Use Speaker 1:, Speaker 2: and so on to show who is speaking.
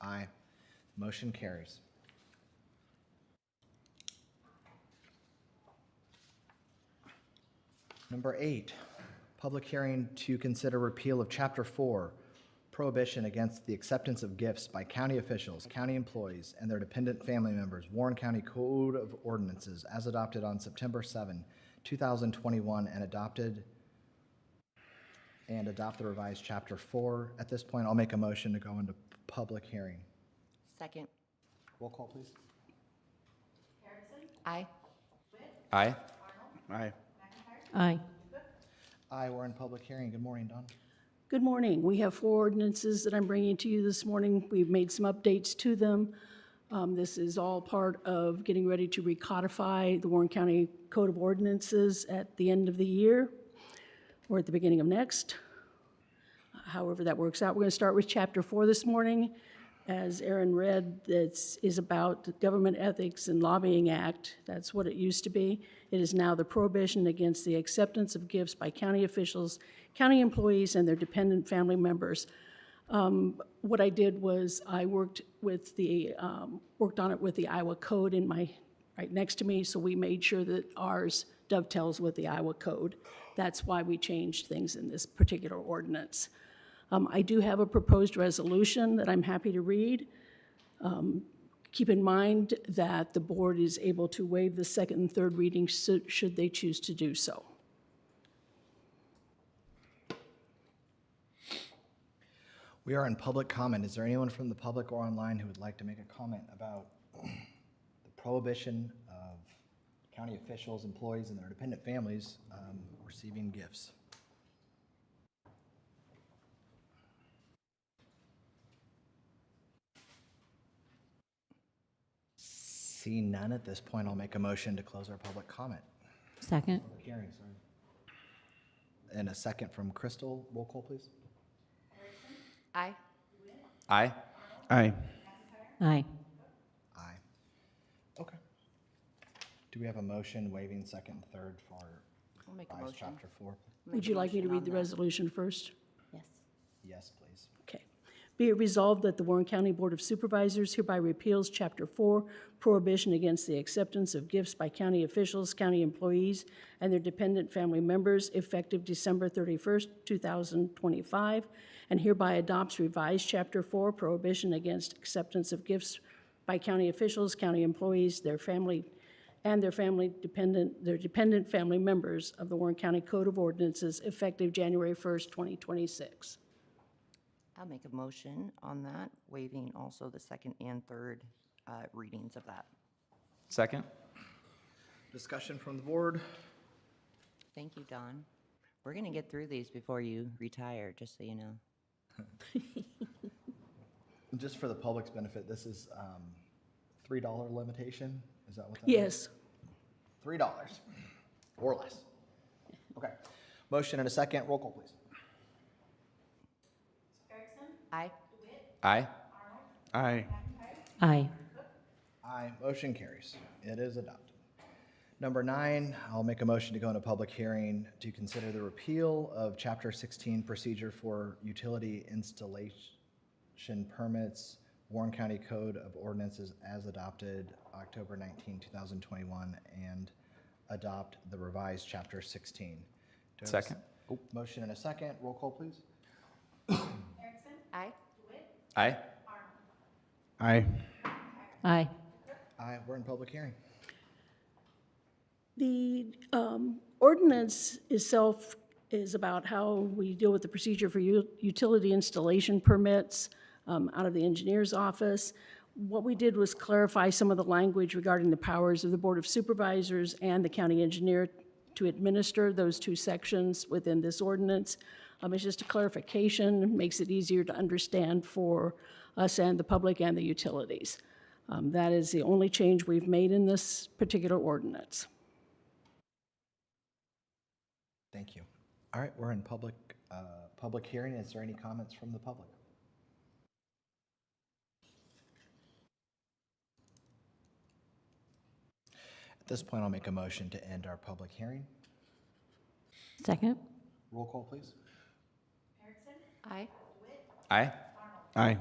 Speaker 1: Aye. Motion carries. Number eight, public hearing to consider repeal of Chapter 4, prohibition against the acceptance of gifts by county officials, county employees, and their dependent family members, Warren County Code of Ordinances, as adopted on September 7, 2021, and adopted, and adopt the revised Chapter 4. At this point, I'll make a motion to go into public hearing.
Speaker 2: Second.
Speaker 1: Roll call, please.
Speaker 2: Aye.
Speaker 3: Aye. Aye.
Speaker 4: Aye.
Speaker 1: Aye, we're in public hearing. Good morning, Don.
Speaker 4: Good morning. We have four ordinances that I'm bringing to you this morning. We've made some updates to them. Um, This is all part of getting ready to recodify the Warren County Code of Ordinances at the end of the year or at the beginning of next, however that works out. We're going to start with Chapter 4 this morning. As Aaron read, this is about the Government Ethics and Lobbying Act. That's what it used to be. It is now the prohibition against the acceptance of gifts by county officials, county employees, and their dependent family members. Um, What I did was I worked with the, um, worked on it with the Iowa Code in my, right next to me, so we made sure that ours dovetails with the Iowa Code. That's why we changed things in this particular ordinance. Um, I do have a proposed resolution that I'm happy to read. Um, Keep in mind that the board is able to waive the second and third reading so- should they choose to do so.
Speaker 1: We are in public comment. Is there anyone from the public or online who would like to make a comment about the prohibition of county officials, employees, and their dependent families um, receiving gifts? See none at this point, I'll make a motion to close our public comment.
Speaker 2: Second.
Speaker 1: Public hearing, sorry. And a second from Crystal. Roll call, please.
Speaker 2: Aye.
Speaker 3: Aye. Aye.
Speaker 2: Aye.
Speaker 1: Aye. Okay. Do we have a motion waiving second and third for
Speaker 2: I'll make a
Speaker 1: revised
Speaker 2: motion.
Speaker 1: chapter four?
Speaker 4: Would you like me to read the resolution first?
Speaker 2: Yes.
Speaker 1: Yes, please.
Speaker 4: Okay. Be it resolved that the Warren County Board of Supervisors hereby repeals Chapter 4, prohibition against the acceptance of gifts by county officials, county employees, and their dependent family members effective December 31st, 2025, and hereby adopts revised Chapter 4, prohibition against acceptance of gifts by county officials, county employees, their family, and their family dependent, their dependent family members of the Warren County Code of Ordinances effective January 1st, 2026.
Speaker 2: I'll make a motion on that, waiving also the second and third uh, readings of that.
Speaker 3: Second?
Speaker 1: Discussion from the board.
Speaker 2: Thank you, Don. We're going to get through these before you retire, just so you know.
Speaker 1: Just for the public's benefit, this is um, $3 limitation? Is that what that is?
Speaker 4: Yes.
Speaker 1: $3 or less. Okay. Motion and a second. Roll call, please.
Speaker 2: Aye.
Speaker 3: Aye. Aye.
Speaker 2: Aye.
Speaker 1: Aye, motion carries. It is adopted. Number nine, I'll make a motion to go into public hearing to consider the repeal of Chapter 16 Procedure for Utility Installation Permits, Warren County Code of Ordinances as adopted October 19, 2021, and adopt the revised Chapter 16. Do I have a s-
Speaker 3: Second.
Speaker 1: Motion and a second. Roll call, please.
Speaker 2: Aye.
Speaker 3: Aye. Aye.
Speaker 2: Aye.
Speaker 1: Aye, we're in public hearing.
Speaker 4: The um, ordinance itself is about how we deal with the procedure for u- utility installation permits um, out of the engineer's office. What we did was clarify some of the language regarding the powers of the Board of Supervisors and the county engineer to administer those two sections within this ordinance. Um, It's just a clarification, makes it easier to understand for us and the public and the utilities. Um, That is the only change we've made in this particular ordinance.
Speaker 1: Thank you. All right, we're in public, uh, public hearing. Is there any comments from the public? At this point, I'll make a motion to end our public hearing.
Speaker 2: Second.
Speaker 1: Roll call, please.
Speaker 2: Aye.
Speaker 3: Aye. Aye.